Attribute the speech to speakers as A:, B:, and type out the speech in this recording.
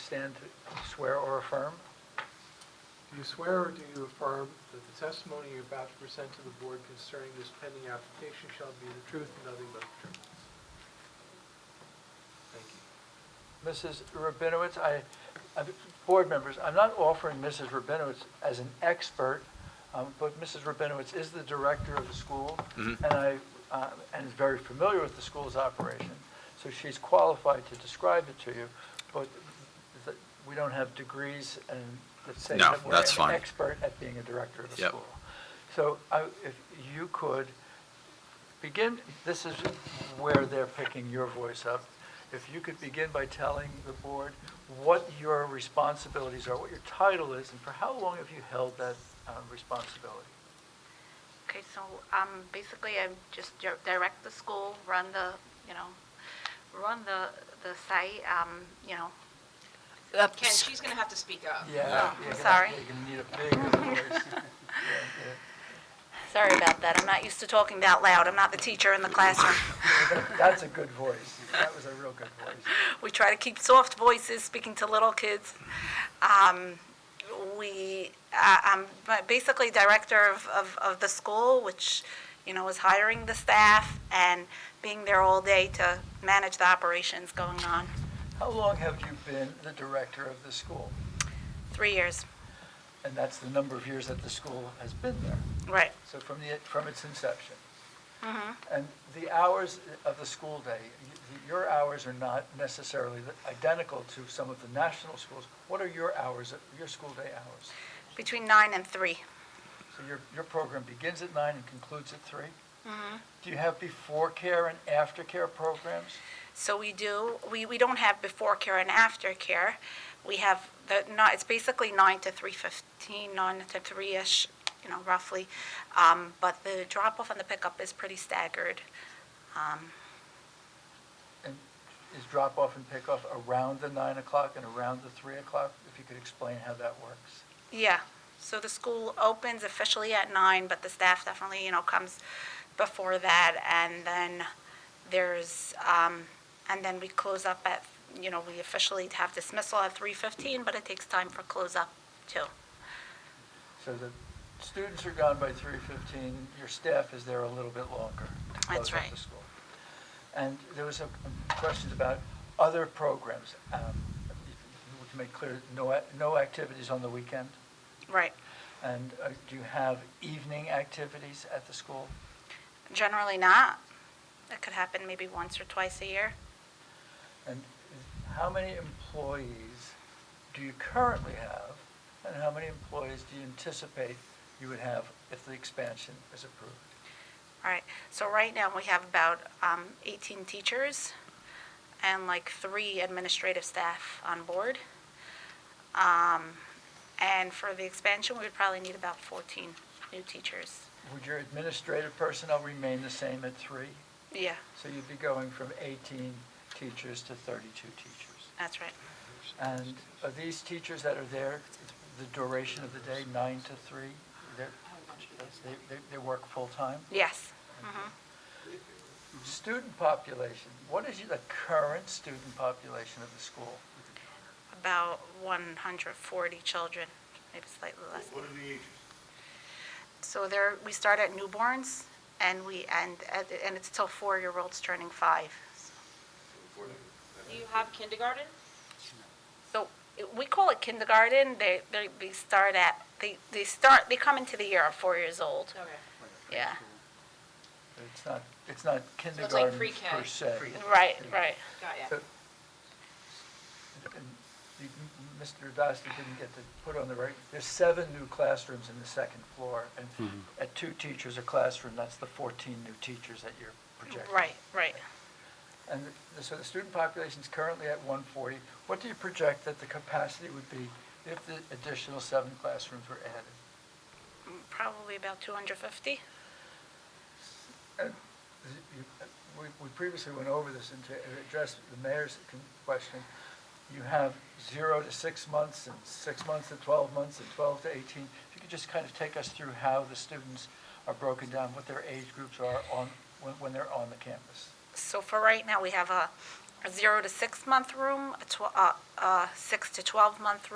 A: stand to swear or affirm
B: Do you swear or do you affirm that the testimony you're about to present to the board concerning this pending application shall be the truth and nothing but the truth? Thank you.
A: Mrs. Rabinowitz, I, I- board members, I'm not offering Mrs. Rabinowitz as an expert, um, but Mrs. Rabinowitz is the director of the school, and
C: Mm-hmm.
A: I, uh, and is very familiar with the school's operation, so she's qualified to describe it to you, but th- we don't have degrees and that say
C: No,
A: that we're
C: that's
A: an
C: fine.
A: expert at being a director of the
C: Yep.
A: school. So I- if you could begin, this is where they're picking your voice up. If you could begin by telling the board what your responsibilities are, what your title is, and for how long have you held that uh, responsibility?
D: Okay, so um, basically, I just dir- direct the school, run the, you know, run the, the site, um, you know.
E: Uh,
F: Ken, she's going to have to speak up.
A: Yeah,
D: Oh,
A: you're gonna-
D: sorry.
A: You're going to need a big voice.
D: Sorry about that, I'm not used to talking that loud, I'm not the teacher in the classroom.
A: That's a good voice. That was a real good voice.
D: We try to keep soft voices, speaking to little kids. Um, We, uh, I'm ba- basically director of, of, of the school, which, you know, is hiring the staff and being there all day to manage the operations going on,
A: How long have you been the director of the school?
D: three years.
A: And that's the number of years that the school has been there.
D: Right.
A: So from the, from its inception. And the hours of the school day, y- your hours are not necessarily identical to some of the national schools. What are your hours, your school day hours?
D: Between nine and three.
A: So your, your program begins at nine and concludes at 3 Do you have before care and after care programs?
D: So we do, we, we don't have before care and after care. We have the, no, it's basically nine to three fifteen, nine to three-ish, you know, roughly. Um, but the drop-off and the pickup is pretty staggered. Um,
A: And is drop-off and pick-off around the nine o'clock and around the three o'clock? If you could explain how that works.
D: yeah, so the school opens officially at nine, but the staff definitely, you know, comes before that. And then there's, um, and then we close up at, you know, we officially have dismissal at three fifteen, but it takes time for close-up too.
A: So the students are gone by three fifteen, your staff is there a little bit longer to
D: That's
A: close up the
D: right.
A: school. And there was some questions about other programs. Um, We can make clear, no, ac- no activities on the weekend?
D: Right.
A: And uh, do you have evening activities at the school?
D: Generally not. It could happen maybe once or twice a year.
A: And how many employees do you currently have? And how many employees do you anticipate you would have if the expansion is approved?
D: All right. So right now we have about um, 18 teachers and like three administrative staff on board. Um, and for the expansion, we would probably need about 14 new teachers.
A: Would your administrative personnel remain the same at three?
D: Yeah,
A: So you'd be going from 18 teachers to 32 teachers.
D: that's right.
A: And are these teachers that are there, the duration of the day, nine to three, they're, they, they, they work full-time?
D: Yes. hmm
A: Student population, what is the current student population of the school?
D: About 140 children, maybe slightly less.
G: What are the ages?
D: So there, we start at newborns and we end, at- and it's till four-year-olds turning five.
F: Do you have kindergarten?
D: So it- we call it kindergarten. They, they, they start at, they, they start, they come into the year at four years old.
F: Okay.
D: Yeah,
A: It's not, it's not
F: like
A: kindergarten
F: pre-K.
A: per se.
D: right, right.
F: Got ya.
A: So- and you- Mr. Dostie didn't get to put on the right, there's seven new classrooms in the second floor, and at two teachers a classroom, that's the 14 new teachers that you're projecting.
D: Right, right.
A: And the- so the student population is currently at 140. What do you project that the capacity would be if the additional seven classrooms were added?
D: Probably about 250.
A: And you- We we previously went over this and to address the mayor's con- question. You have zero to six months, and six months to 12 months, and 12 to 18. If you could just kind of take us through how the students are broken down, what their age groups are on, when when they're on the campus.
D: So for right now, we have a a zero to six-month room, a tw- uh, a uh, six to 12-month